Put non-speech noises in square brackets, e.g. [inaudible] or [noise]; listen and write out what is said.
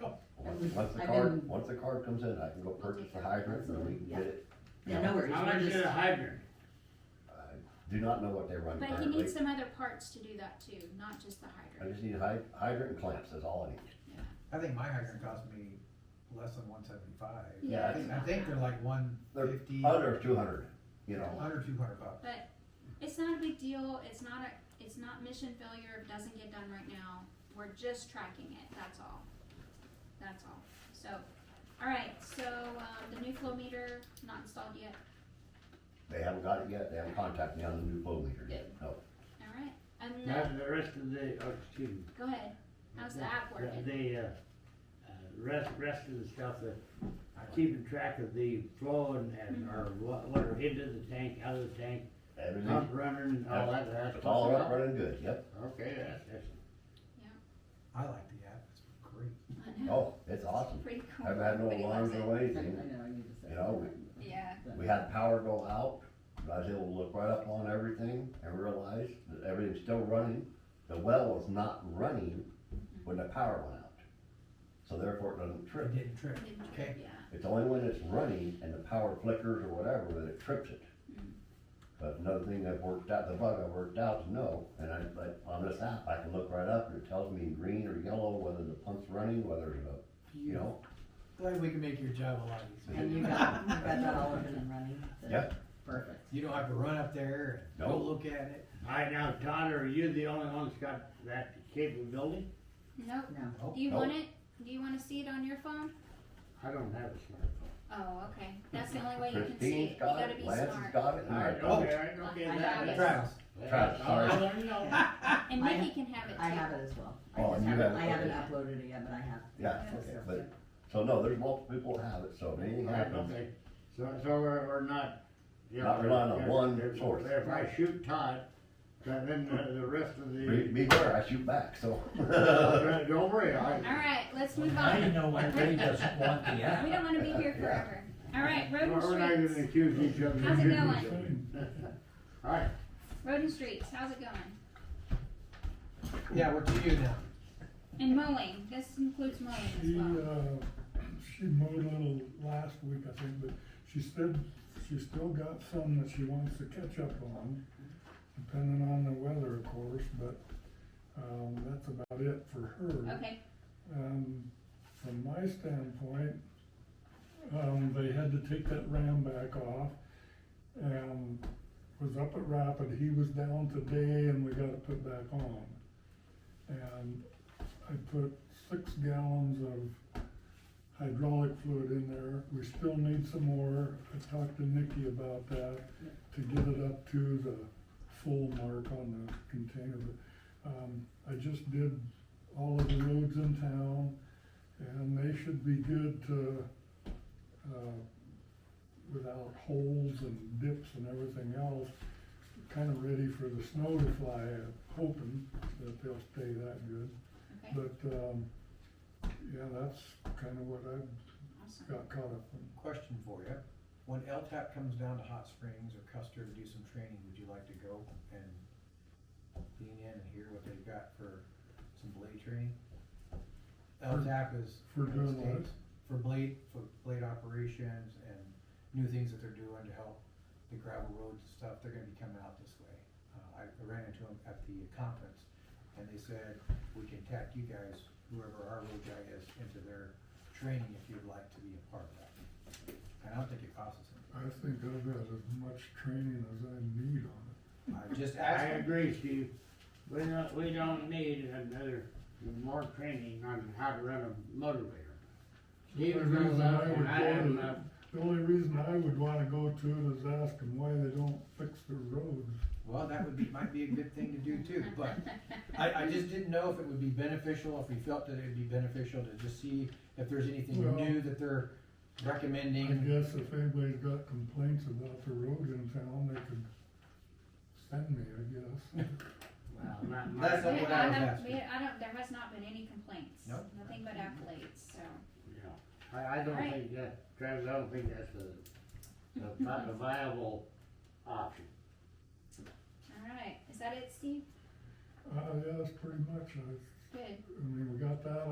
we- Once the I've card, been- once the card comes in, I can go purchase the hydrant and we can get it. Yeah, no worries, How we're much is just, a hydrant? I Do not know what they run But he needs currently. some other parts to do that too, not just the I hydrant. just need hy- hydrant and clamps, that's all I need. I think my hydrant cost me less than one seventy-five. Yeah, I think, I think they're like one fifty, Under two hundred, you know, under two hundred bucks. It's not a big deal, it's not a, it's not mission failure, it doesn't get done right now, we're just tracking it, that's all. That's all, so, alright, so, um, the new flow meter, not installed yet, they haven't got it yet, they haven't contacted me on the new flow meter yet, no. alright, and Now, then, the rest of the, oh, excuse me, go ahead, how's the app the, working? the, uh, uh, rest, rest of the stuff, that uh, keeping track of the flow and, and, Mm-hmm. or what, what are into the tank, out of the tank, pump Everything, running, and all that, that's. Mm-hmm. it's all up, working running good, yep. out? Okay, that's, that's, I like the app, it's great. I [laughs] know, Oh, it's awesome. Pretty cool. Haven't had no Everybody loves alarms it. or I know, anything. I need to say. You know, that. Yeah, We had power go out, but I was able to look right up on everything and realize that everything's still running. The well was not running when the power went out. So therefore it doesn't It trip. didn't trip. it didn't Okay. trip, yeah. It's only when it's running and the power flickers or whatever that it trips it. But another thing that worked out, the bug I worked out is no, and I, but on this app, I can look right up and it tells me in green or yellow whether the pump's running, whether it's a, you know, Glad we can make your job a lot easier. And you got, you got that all open and running? Yeah. Perfect. You don't have to run up there and go Nope. look at it. all right, now, Todd, are you the only one that's got that capability? Nope, No, Nope. do you Nope. want it, do you wanna see it on your phone? I don't have a Oh, okay. That's the only way you can see it. Christine's You got gotta be it, Lance's smart. got it, and smartphone. All I right, don't. okay, all right, okay, I that- have it. Travis, Travis, all right, sorry. let me know. Yeah. And I Nikki can have it too. I have it as well. I Oh, just you haven't, have it, I haven't okay. uploaded it yet, but I have. Yeah, okay, but So no, there's multiple people that have it, so if anything All right, happens, okay, so, so we're, we're not. you know, Not relying on if- one if- source. If I shoot Todd, then, then the, the rest of be, the, be aware, I shoot back, so. [laughs] [laughs] don't worry, I. Alright, let's move Now you on. know [laughs] why Ray doesn't want the app. We don't wanna be here forever. Alright, road We're not and gonna streets. accuse each other. of How's it shooting going? each other. [laughs] All right, Road and streets, how's it going? yeah, we're to you now. And mowing, this includes mowing as She, well. uh, she mowed a little last week, I think, but she said she's still got some that she wants to catch up on, depending on the weather, of course, but, um, that's about it for her. Okay, Um, from my standpoint, um, they had to take that ram back off and was up at Rapid, he was down today and we got it put back on. And I put six gallons of hydraulic fluid in there, we still need some more, I talked to Nikki about that, to get it up to the full mark on the container, but, um, I just did all of the roads in town, and they should be good to, uh, without holes and dips and everything else, kinda ready for the snow to fly, I'm hoping that they'll stay that good. okay, But, um, yeah, that's kinda what I awesome. uh, got caught up on. Question for you. When LTAP comes down to Hot Springs or Custer to do some training, would you like to go and lean in and hear what they've got for some blade training? LTAP is. For doing what? For blade, for blade operations and new things that they're doing to help the gravel roads and stuff, they're gonna be coming out this way. Uh, I I ran into them at the conference and they said, we can tack you guys, whoever our road guy is, into their training if you'd like to be a part of that. And I don't think it costs us anything. I think I've got as much training as I need on it. I just I asked them. agree, Steve, we don't, we don't need another, more training on how to run a motivator. Steve The knows reason that, I and would I have go to- enough, The only reason I would wanna go to it is ask them why they don't fix their roads. Well, that would be, might be a good thing to do too, but I, I just didn't know if it would be beneficial, if we felt that it'd be beneficial to just see if there's anything Well- new that they're recommending. I guess if anybody's got complaints about the roads in town, they could send me, I guess. [laughs] well, not much. That's We- I what I was have- asking. we- I don't, there has not been any complaints. Nope. Nothing but accolades, so. Yeah, I, I don't Right. think that, Travis, I don't think that's a, a vi- a viable option. Alright, is that it, Steve? Uh, yeah, that's pretty much, I, Good. I mean, we got that